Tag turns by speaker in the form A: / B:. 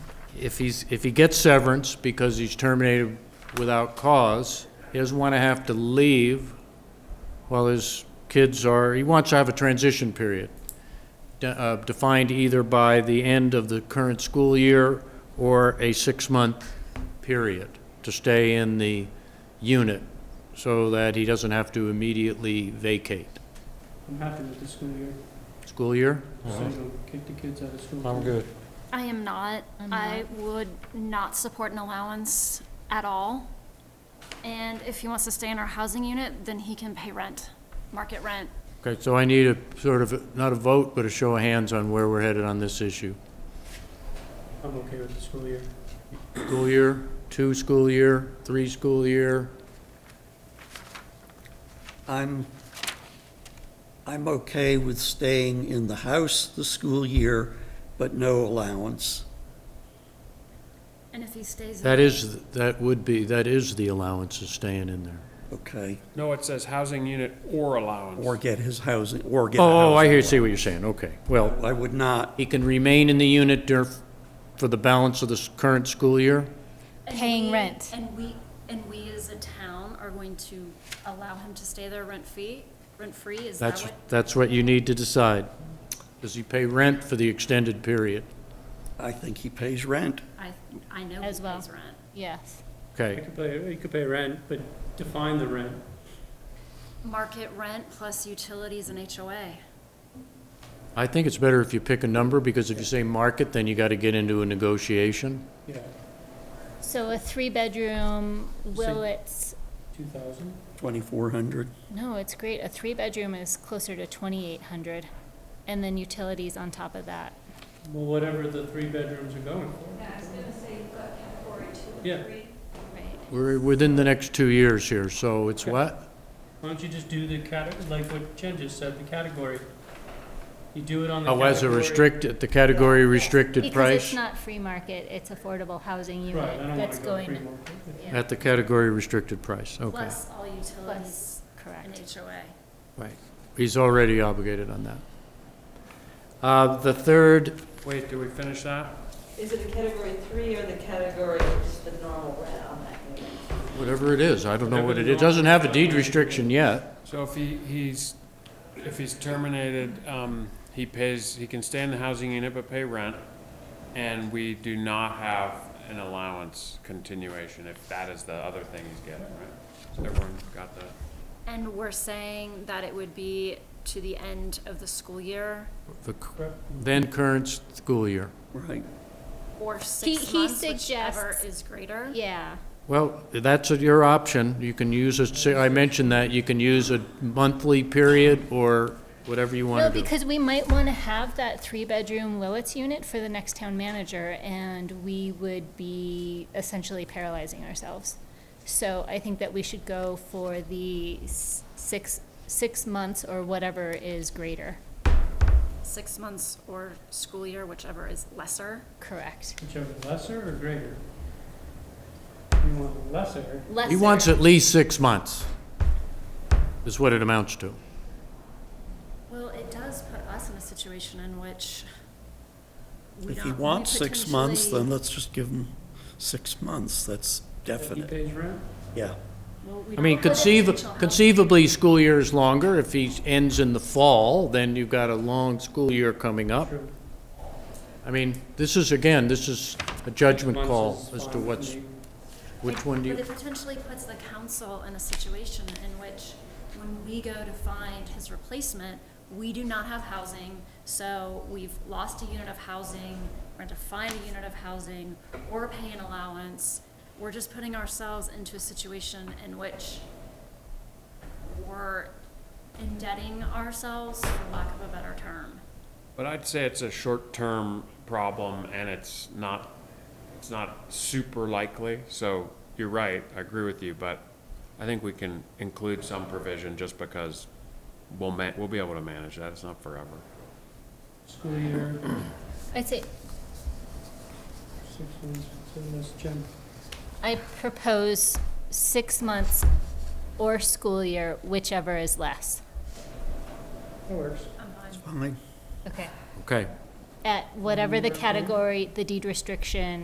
A: if he's, if he gets severance because he's terminated without cause, he doesn't want to have to leave while his kids are, he wants to have a transition period, de- uh, defined either by the end of the current school year or a six-month period to stay in the unit so that he doesn't have to immediately vacate.
B: I'm happy with the school year,
A: School year?
B: so it'll kick the kids out of school.
C: I'm good.
D: I am not. I would not support an allowance at all. And if he wants to stay in our housing unit, then he can pay rent, market rent.
A: Okay, so I need a sort of, not a vote, but a show of hands on where we're headed on this issue.
B: I'm okay with the school year.
A: School year, two school year, three school year,
E: I'm, I'm okay with staying in the house the school year, but no allowance.
D: And if he stays.
A: that is, that would be, that is the allowance is staying in there.
E: Okay,
F: No, it says housing unit or allowance.
E: or get his housing, or get a
A: Oh, oh, I
E: housing.
A: hear, see what you're saying, okay. Well,
E: I would not,
A: he can remain in the unit dur, for the balance of the s- current school year?
D: And
G: Paying
D: we-
G: rent.
D: And we, and we as a town are going to allow him to stay there rent free, rent free? Is that
A: That's,
D: what?
A: that's what you need to decide. Does he pay rent for the extended period?
E: I think he pays rent.
D: I, I know he
G: As
D: pays
G: well.
D: rent.
G: Yes.
B: I
A: Okay,
B: could pay, you could pay rent, but define the rent.
D: Market rent plus utilities and HOA.
A: I think it's better if you pick a number, because if you say market, then you gotta get into a negotiation.
B: Yeah,
G: So a three-bedroom,
B: So-
G: will it's,
B: two thousand.
E: 2,400.
G: no, it's great. A three-bedroom is closer to twenty-eight hundred. And then utilities on top of that.
B: Well, whatever the three bedrooms are going for.
H: Yeah, I was gonna say you've got category two and
B: Yeah.
H: three.
G: Right.
A: We're within the next two years here, so it's what?
B: Why don't you just do the cate, like what Jen just said, the category? You do it on the
A: Oh,
B: category.
A: as a restricted, the category restricted
G: Because it's
A: price?
G: not free market, it's affordable housing
B: Right, I
G: unit
B: don't wanna
G: that's
B: go free
G: going,
B: market.
A: At the category restricted price, okay.
D: Plus all utilities
G: Plus,
D: and
G: correct.
D: HOA.
A: Right. He's already obligated on that. Uh, The third,
F: Wait, do we finish that?
H: Is it the category three or the category, just the normal rent on that unit?
A: whatever it is, I don't know what it is, it doesn't have a deed restriction yet.
F: So if he, he's, if he's terminated, um, he pays, he can stay in the housing unit but pay rent, and we do not have an allowance continuation, if that is the other thing he's getting, right? So Everyone got the,
D: And we're saying that it would be to the end of the school year
A: The c- Then current school year.
E: Right.
D: or six
G: he
D: months, whichever
G: suggests-
D: is greater?
G: Yeah,
A: Well, that's your option. You can use a, say, I mentioned that, you can use a monthly period or whatever you
G: no,
A: want to do.
G: because we might want to have that three-bedroom Willits unit for the next town manager, and we would be essentially paralyzing ourselves. So I think that we should go for the s- six, six months or whatever is greater,
D: Six months or school year, whichever is lesser?
G: correct?
B: Whichever, lesser or greater? You want lesser,
A: He wants at least six months, is what it amounts to.
D: Well, it does put us in a situation in which we
E: If he
D: don't- we
E: wants six months,
D: potentially-
E: then let's just give him six months. That's
B: if he
E: definite,
B: pays rent?
E: yeah.
D: well, we
A: I mean,
D: don't have
A: conceiv-
D: potential help.
A: conceivably, school year is longer. If he ends in the fall, then you've got a long school year coming up.
B: True.
A: I mean, this is, again, this is a judgment
B: Months
A: call
B: is
A: as
B: fine
A: to
B: with
A: what's,
B: me.
A: which one do
D: But
A: you,
D: it potentially puts the council in a situation in which when we go to find his replacement, we do not have housing, so we've lost a unit of housing, we're going to find a unit of housing or pay an allowance. We're just putting ourselves into a situation in which we're indebting ourselves, for lack of a better term.
F: but I'd say it's a short-term problem, and it's not, it's not super likely, so you're right, I agree with you, but I think we can include some provision just because we'll ma, we'll be able to manage that, it's not forever.
B: School year,
G: I'd say,
B: six months, seven months, Jen.
G: I propose six months or school year, whichever is less.
B: That works.
D: I'm fine.
E: Fine.
G: Okay.
A: okay.
G: At whatever the category, the deed restriction,